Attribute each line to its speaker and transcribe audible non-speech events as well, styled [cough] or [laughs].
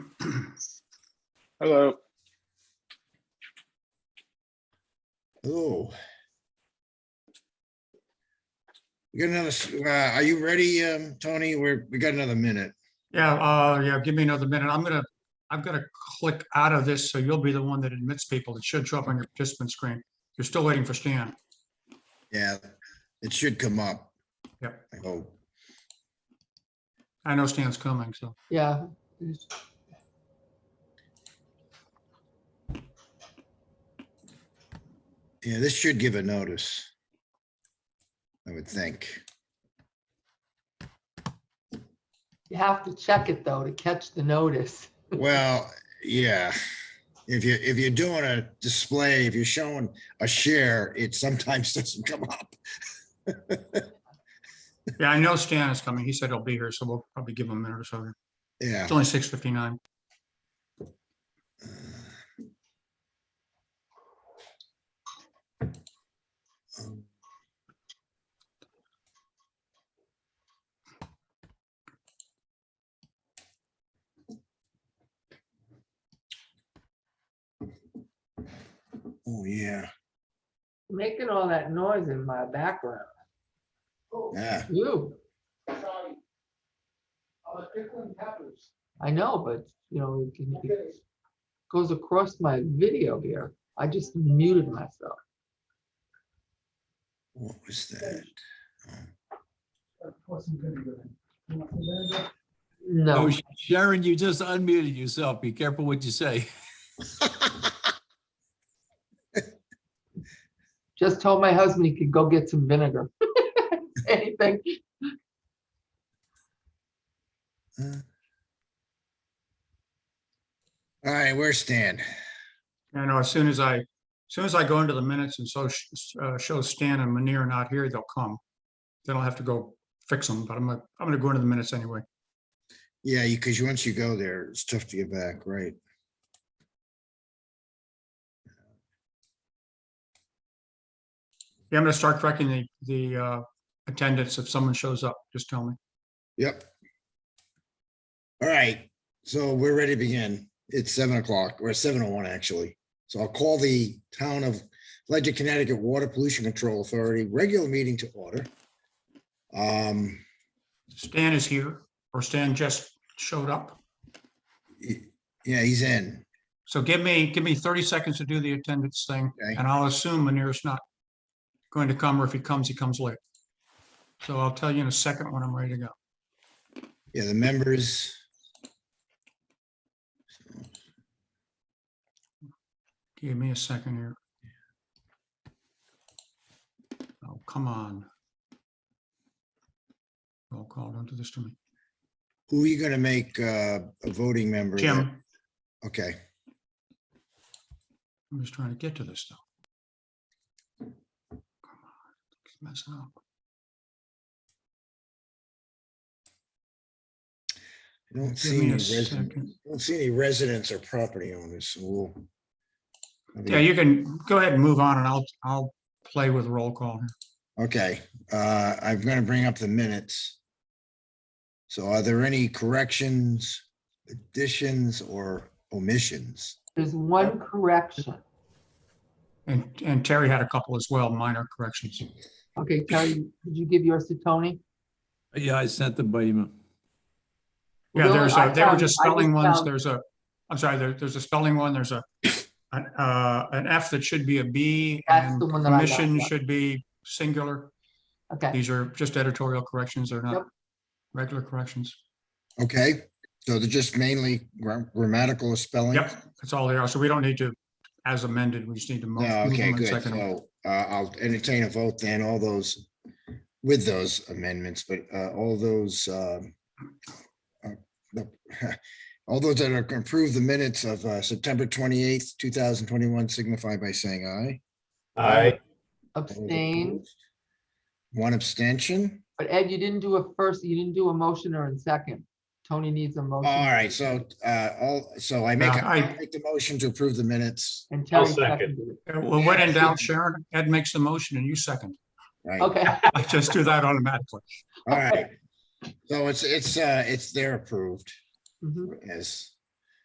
Speaker 1: Hello.
Speaker 2: Oh. We got another, s- uh, are you ready, um, Tony? We're, we got another minute.
Speaker 3: Yeah, uh, yeah, give me another minute. I'm gonna, I've gotta click out of this, so you'll be the one that admits people. It should show up on your participant screen. You're still waiting for Stan.
Speaker 2: Yeah, it should come up.
Speaker 3: Yep.
Speaker 2: I hope.
Speaker 3: I know Stan's coming, so.
Speaker 4: Yeah.
Speaker 2: Yeah, this should give a notice. I would think.
Speaker 4: You have to check it though to catch the notice.
Speaker 2: Well, yeah. If you, if you're doing a display, if you're showing a share, it sometimes [laughs] doesn't come up.
Speaker 3: Yeah, I know Stan is coming. He said he'll be here, so we'll probably give him a minute or so.
Speaker 2: Yeah.
Speaker 3: It's only six fifty-nine.
Speaker 2: Oh, yeah.
Speaker 4: Making all that noise in my background.
Speaker 2: Yeah.
Speaker 4: You. I know, but you know, it can- it goes across my video here. I just muted myself.
Speaker 2: What was that?
Speaker 4: No,
Speaker 5: Oh, Sharon, you just unmuted yourself. Be careful what you say. [laughs]
Speaker 4: just told my husband he could go get some vinegar. [laughs] Anything.
Speaker 2: All right, where's Stan?
Speaker 3: I know, as soon as I, as soon as I go into the minutes and so, sh- uh, show Stan and Manir not here, they'll come. Then I'll have to go fix them, but I'm gonna, I'm gonna go into the minutes anyway.
Speaker 2: Yeah, because once you go there, it's tough to get back, right?
Speaker 3: Yeah, I'm gonna start correcting the, the, uh, attendance. If someone shows up, just tell me.
Speaker 2: Yep. All right, so we're ready to begin. It's seven o'clock, or seven oh one, actually. So I'll call the town of Ledger, Connecticut Water Pollution Control Authority regular meeting to order. Um,
Speaker 3: Stan is here, or Stan just showed up.
Speaker 2: y- yeah, he's in.
Speaker 3: So give me, give me thirty seconds to do the attendance thing,
Speaker 2: Okay.
Speaker 3: and I'll assume Manir's not going to come, or if he comes, he comes late. So I'll tell you in a second when I'm ready to go.
Speaker 2: Yeah, the members.
Speaker 3: Give me a second here. Oh, come on. Roll call, don't do this to me.
Speaker 2: Who are you gonna make uh, a voting member?
Speaker 3: Jim,
Speaker 2: Okay,
Speaker 3: I'm just trying to get to this stuff. Come on, it's Messing up.
Speaker 2: I don't
Speaker 3: Give
Speaker 2: see
Speaker 3: me
Speaker 2: any
Speaker 3: a
Speaker 2: residents,
Speaker 3: second.
Speaker 2: don't see any residents or property owners, so we'll.
Speaker 3: Yeah, you can go ahead and move on and I'll, I'll play with roll call. here.
Speaker 2: Okay, uh, I'm gonna bring up the minutes. So are there any corrections, additions, or omissions?
Speaker 4: there's one correction.
Speaker 3: And, and Terry had a couple as well, minor corrections.
Speaker 4: Okay, Terry, did you give yours to Tony?
Speaker 5: Yeah, I sent them by email.
Speaker 3: Yeah,
Speaker 4: Really?
Speaker 3: there's
Speaker 4: I
Speaker 3: a, they were
Speaker 4: found-
Speaker 3: just
Speaker 4: I um,
Speaker 3: spelling ones.
Speaker 4: found-
Speaker 3: There's a, I'm sorry, there, there's a spelling one, there's a, an, uh, an F that should be a B
Speaker 4: That's
Speaker 3: and
Speaker 4: the one that I got,
Speaker 3: commission
Speaker 4: yeah.
Speaker 3: should be singular.
Speaker 4: Okay,
Speaker 3: These are just editorial corrections. They're
Speaker 4: Yep.
Speaker 3: not regular corrections.
Speaker 2: Okay, so they're just mainly gra- grammatical or spelling?
Speaker 3: Yep, that's all they are. So we don't need to, as amended, we just need to. mo-
Speaker 2: No,
Speaker 3: move
Speaker 2: Oh, Okay,
Speaker 3: them and
Speaker 2: good.
Speaker 3: second them.
Speaker 2: So uh, I'll entertain a vote then, all those, with those amendments, but uh, all those, um, uh, the- [laughs] all those that are approved the minutes of uh, September 28th, 2021 signify by saying aye.
Speaker 6: Aye.
Speaker 2: All those
Speaker 4: abstain.
Speaker 2: opposed? One abstention.
Speaker 4: But Ed, you didn't do a first, you didn't do a motion or a second. Tony needs a motion.
Speaker 2: All right, so, uh, all, so I make,
Speaker 3: Yeah, I-
Speaker 2: a- make the motion to approve the minutes,
Speaker 4: And Terry
Speaker 6: second.
Speaker 4: seconded it.
Speaker 3: Uh, Well, when in doubt, Sharon, Ed makes the motion and you second.
Speaker 2: right? All [laughs]
Speaker 4: Okay,
Speaker 3: I just do that automatically.
Speaker 2: right. So it's, it's, uh, it's, they're approved
Speaker 4: Mhm.
Speaker 2: as,